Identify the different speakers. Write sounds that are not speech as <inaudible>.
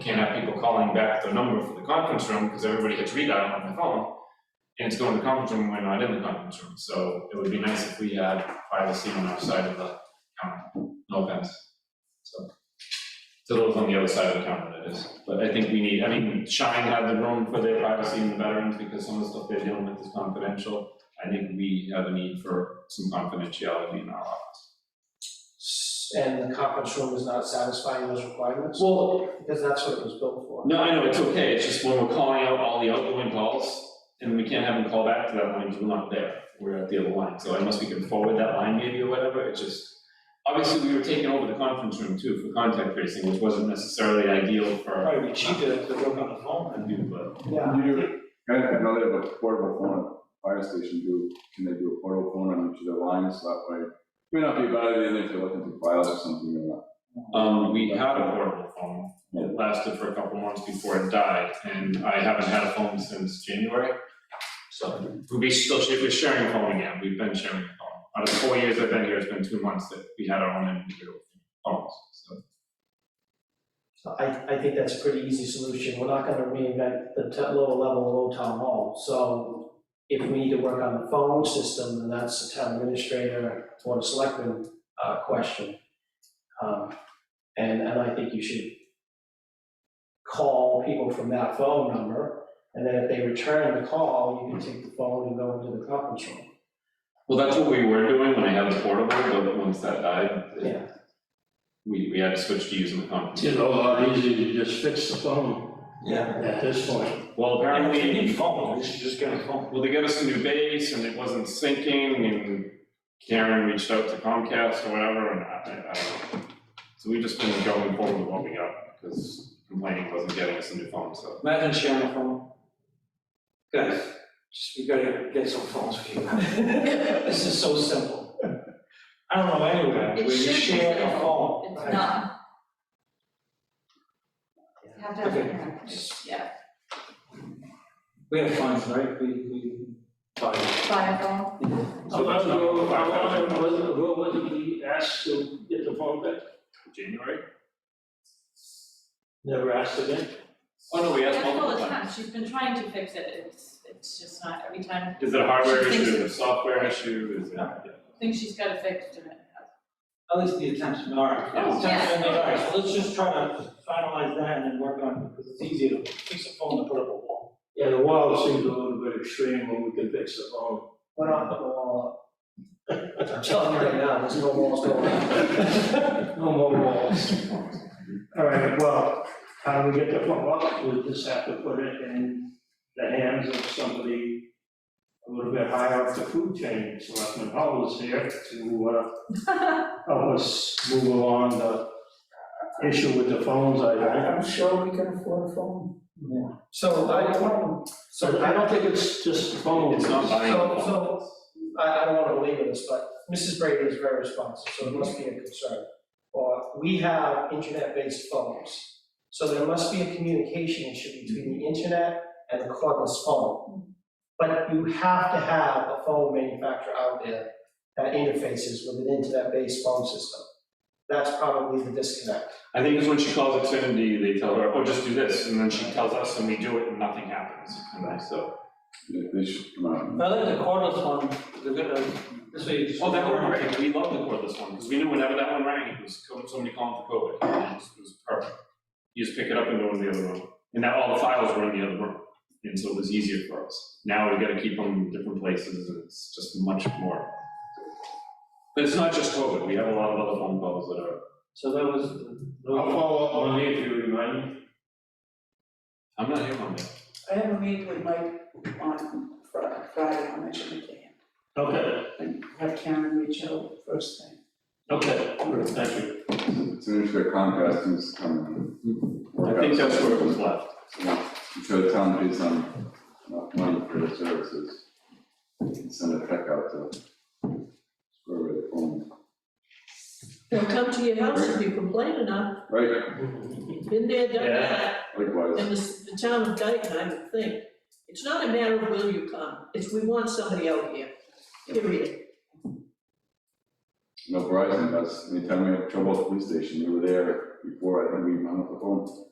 Speaker 1: can't have people calling back their number for the conference room, because everybody gets readout on their phone. And it's going to the conference room, when we're not in the conference room, so it would be nice if we had privacy on our side of the counter, no offense. So, it's a little on the other side of the counter, that is, but I think we need, I mean, Shine had the room for their privacy and the veterans, because some of the stuff they're dealing with is confidential. I think we have a need for some confidentiality in our office.
Speaker 2: S- And the conference room is not satisfying those requirements?
Speaker 1: Well,
Speaker 2: Because that's what it was built for.
Speaker 1: No, I know, it's okay, it's just when we're calling out all the outgoing calls, and we can't have them call back to that line, because we're not there, we're at the other line, so unless we can forward that line maybe or whatever, it's just. Obviously, we were taking over the conference room too for contact tracing, which wasn't necessarily ideal for
Speaker 2: Probably cheaper if they work on the phone.
Speaker 1: a new, but
Speaker 2: Yeah.
Speaker 3: You do, I I know they have a portable phone, fire station do, can they do a portable phone on each of their lines, so that way? May not be a bad idea if they're looking through files or something or not.
Speaker 1: um, we had a portable phone. It lasted for a couple months before it died, and I haven't had a phone since January. So we still, we're sharing a phone again, we've been sharing a phone. Out of four years I've been here, it's been two months that we had our own individual phones, so.
Speaker 2: So I, I think that's a pretty easy solution. We're not gonna reinvent the t- lower level of Old Town Hall. So if we need to work on the phone system, then that's the town administrator, board of selectmen, uh, question. Um, and, and I think you should call people from that phone number, and then if they return the call, you can take the phone and go into the conference room.
Speaker 1: Well, that's what we were doing when I had the portable, but once that died, it-
Speaker 2: Yeah.
Speaker 1: we, we had to switch to using the conference.
Speaker 4: It's a lot easier to just fix the phone
Speaker 5: Yeah.
Speaker 4: at this point.
Speaker 1: Well,
Speaker 5: And if you
Speaker 1: apparently,
Speaker 5: need phone, you should just get a phone.
Speaker 1: well, they got us a new base and it wasn't syncing and Karen reached out to Comcast or whatever and I, I don't know. So we just been going forward with what we got because complaining wasn't getting us a new phone, so.
Speaker 5: Imagine sharing a phone. Guys, just, we gotta get some phones for you. <laughs> This is so simple. I don't know anywhere where
Speaker 6: It
Speaker 5: you
Speaker 6: should be
Speaker 5: share a
Speaker 6: simple.
Speaker 5: phone.
Speaker 6: It's not. You have to have
Speaker 5: Okay.
Speaker 6: internet, yeah,
Speaker 5: We have phones, right? We, we buy.
Speaker 6: by phone,
Speaker 1: So that's not-
Speaker 4: What was it we asked to get the phone back?
Speaker 1: January?
Speaker 4: Never asked again?
Speaker 1: Oh, no, we asked
Speaker 6: that's all
Speaker 1: multiple
Speaker 6: the
Speaker 1: times.
Speaker 6: time, she's been trying to fix it, it's, it's just not, every time,
Speaker 1: Is it a hardware
Speaker 6: She thinks
Speaker 1: issue, is it a software issue, is it?
Speaker 6: think she's got it fixed and it hasn't.
Speaker 5: At least the attempts, all right.
Speaker 6: Oh,
Speaker 5: Attempts
Speaker 6: yeah.
Speaker 5: been made, All right, so let's just try to finalize that and then work on, because it's easier to fix a phone than put up a wall.
Speaker 4: Yeah, the wall seems a little bit extreme when we can fix the phone.
Speaker 2: Why not put the wall up? <laughs> I'm telling you right now, there's no walls going up. No more walls.
Speaker 4: All right, well, how do we get the phone up? We just have to put it in the hands of somebody a little bit higher up the food chain. Selectman Hull is here to, uh, help us move along the issue with the phones, I think.
Speaker 7: I'm sure we can afford a phone.
Speaker 2: So I,
Speaker 4: So I don't think it's just the phone.
Speaker 1: It's not buying a
Speaker 2: So-
Speaker 1: phone.
Speaker 2: so- I, I don't wanna belabor this, but Mrs. Brady is very responsive, so it must be a concern. Or we have internet-based phones, so there must be a communication issue between the internet and the cordless phone. But you have to have a phone manufacturer out there that interfaces with an internet-based phone system. That's probably the disconnect.
Speaker 1: I think it's when she calls Xfinity, they tell her, oh, just do this, and then she tells us, and we do it, and nothing happens, and I, so.
Speaker 3: They- They should come out.
Speaker 5: I like the cordless one, the good, uh, this way you just.
Speaker 1: Oh, that one, right, we love the cordless one, because we knew whenever that one rang, it was co- somebody calling for COVID, and it was- it was perfect. You just pick it up and go in the other room, and now all the files were in the other room, and so it was easier for us. Now we gotta keep them in different places, and it's just much more. But it's not just COVID, we have a lot of other phone calls that are,
Speaker 5: So that was.
Speaker 4: I'll follow up on it if you remind me.
Speaker 1: I'm not here on that.
Speaker 7: I have a meeting with Mike on Fri- Friday, I'll mention it to him.
Speaker 4: Okay,
Speaker 7: And have Karen reach out first thing.
Speaker 4: okay, thank you.
Speaker 3: As soon as their Comcast is coming.
Speaker 1: I think that's where it was left.
Speaker 3: I'm sure the town pays them enough money for their services. And Send a check out to whoever they phone.
Speaker 8: They'll come to your house if you complain enough,
Speaker 3: Right,
Speaker 8: been there, done that,
Speaker 3: likewise.
Speaker 8: and the, s- the town of Dayton, I would think. It's not a matter of will you come, it's we want somebody out here, period.
Speaker 3: No, Verizon does, anytime we have trouble at the police station, we were there before, I think we hung up the phone.